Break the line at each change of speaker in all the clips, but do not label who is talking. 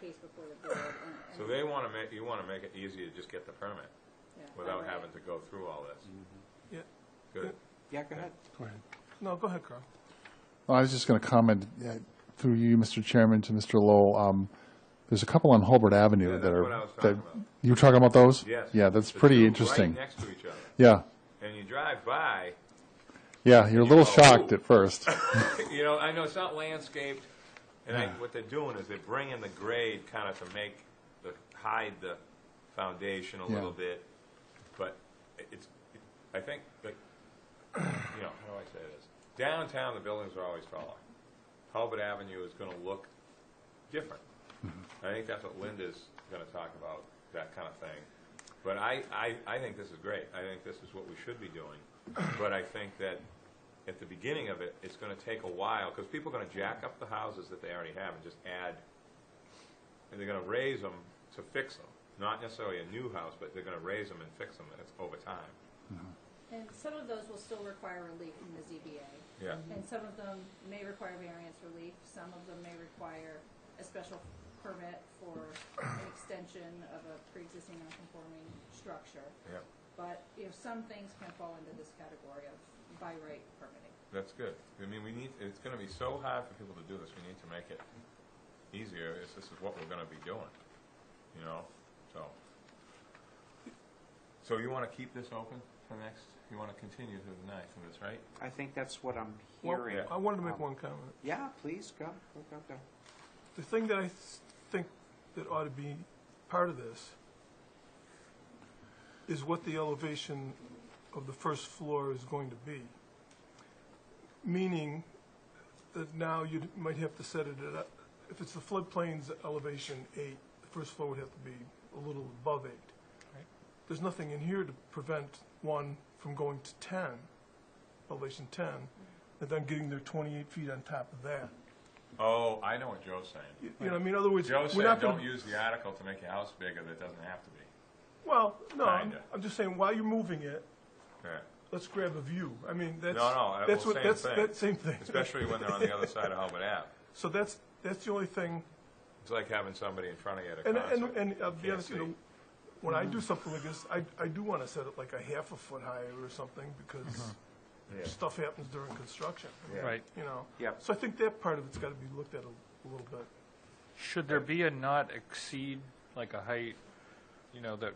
case before the board and. and-
So they want to make, you want to make it easy to just get the permit
yeah,
without
right.
having to go through all this.
Yeah,
Good.
Yeah, go ahead.
Go ahead.
no, go ahead, Carl.
Well, I was just going to comment uh, through you, Mr. Chairman, to Mr. Lowell. um, There's a couple on Holbert Avenue
Yeah,
that
that's
are.
what I was
that-
talking about.
You were talking about those?
Yes.
Yeah, that's
The
pretty
two
interesting.
Right next to each other.
Yeah,
And you drive by,
yeah, you're a little
go,
shocked
"Ooh."
at first.
you know, I know it's not landscaped, and I, what they're doing is they're bringing the grade kind of to make, the hide the foundation a
Yeah.
little bit, but it- it's, it- I think, that you know, how do I say this? Downtown, the buildings are always taller. Talbot Avenue is gonna look different. I think that's what Linda's gonna talk about, that kind of thing. But I, I, I think this is great. I think this is what we should be doing. But I think that at the beginning of it, it's gonna take a while, because people are gonna jack up the houses that they already have and just add, and they're gonna raise them to fix them. Not necessarily a new house, but they're gonna raise them and fix them, and it's over time.
And some of those will still require relief from the ZBA.
Yeah.
And some of them may require variance relief, some of them may require a special permit for an extension of a pre-existing non-conforming structure.
Yeah,
But, you know, some things can fall into this category of by right permitting.
that's good. I mean, we need, it's gonna be so hard for people to do this, we need to make it easier, It's this is what we're gonna be doing, you know, so. So you wanna keep this open for next, you wanna continue through the night with this, right?
I think that's what I'm
Well,
hearing.
I wanted to make
Um,
one comment.
Yeah, please, go, go, go, go.
The thing that I th- think that ought to be part of this is what the elevation of the first floor is going to be. Meaning that now you might have to set it at, a- if it's the floodplain's elevation eight, the first floor would have to be a little above eight. There's nothing in here to prevent one from going to ten, elevation ten, and then getting their twenty-eight feet on top of that.
Oh, I know what Joe's saying.
You know, I mean, in other words,
Joe
we're
said,
not
don't
gonna,
use the article to make your house bigger that doesn't have to be.
well, no, I'm,
Kinda.
I'm just saying, while you're moving it,
Yeah.
let's grab a view. I mean, that's,
No, no, I-
that's
well,
what,
same
that's,
thing.
that same thing.
Especially when they're on the other side of Hubbard Ave.
So that's, that's the only thing,
It's like having somebody in front of you at a
and,
concert.
and, uh, and I'll be
Can't
honest, you know,
see.
when
Mm-hmm.
I do something like this, I, I do wanna set it like a half a foot higher or something, because
Mm-hmm. Yeah.
stuff happens during construction,
Yeah.
Right.
you know?
Yep.
So I think that part of it's gotta be looked at a, a little bit.
Should there be a not exceed, like a height, you know, that,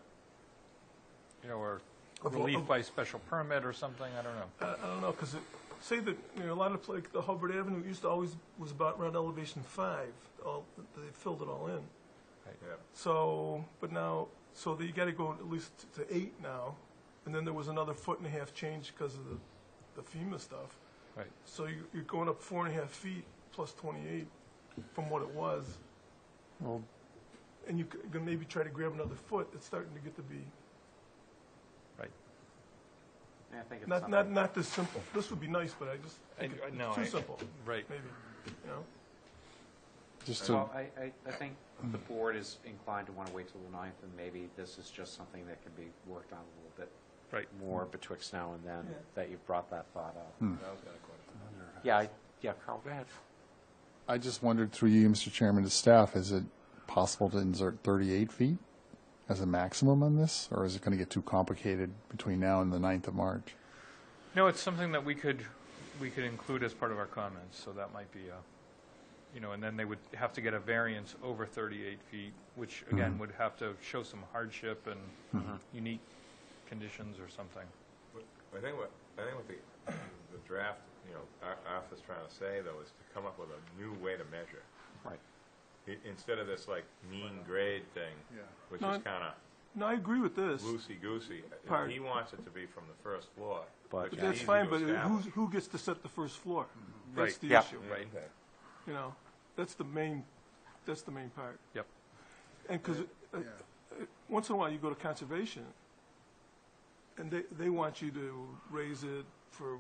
you know, or
Of-
relief
of-
by special permit or something, I don't know.
I, I don't know, because it, say that, you know, a lot of, like, the Hubbard Avenue used to always, was about around elevation five, all, they filled it all in.
Yeah.
So, but now, so that you gotta go at least to eight now, and then there was another foot and a half change because of the, the FEMA stuff.
Right.
So you, you're going up four and a half feet plus twenty-eight from what it was.
Well-
And you could could maybe try to grab another foot, it's starting to get to be,
Yeah, I think it's
not, not,
something.
not this simple. This would be nice, but I just, think
I-
it-
I- no,
it's too
I-
simple,
Right.
maybe, you know?
Just to,
Well, I, I, I think the board is inclined to want to wait till the ninth, and maybe this is just something that can be worked on a little bit
Right.
more betwixt now and then,
Yeah.
that you've brought that thought up.
Um,
That was kinda cool.
Yeah, I, yeah, Carl, go ahead.
I just wondered through you, Mr. Chairman, to staff, is it possible to insert 38 feet as a maximum on this? Or is it going to get too complicated between now and the 9th of March?
No, it's something that we could, we could include as part of our comments, so that might be a, you know, and then they would have to get a variance over 38 feet, which again, would have to show some hardship and unique conditions or something.
I think what, I think what the, the draft, you know, our, our office trying to say though is to come up with a new way to measure.
Right.
I- Instead of this like mean grade thing, which is
No, I-
kinda
No, I agree with this,
loosey-goosey.
Part.
He wants it to be from the first floor,
But-
which
but
is
that's
easy
fine,
to
but who's,
establish.
who gets to set the first floor? That's
Mm-hmm. Right.
the
Yeah.
issue.
Right.
Okay.
You know, that's the main, that's the main part.
Yep.
And because, once in a while, you go to conservation, and they, they want you to raise it for,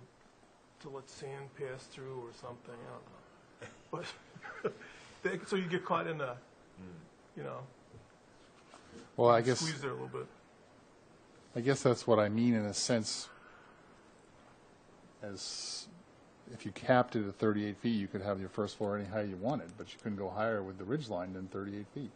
to let sand pass through or something, I don't know. But, they, so you get caught in the,
Mm.
you know,
Well, I guess.
squeeze there a little bit.
I guess that's what I mean in a sense, as if you capped it at 38 feet, you could have your first floor any height you wanted, but you couldn't go higher with the ridge line than 38 feet.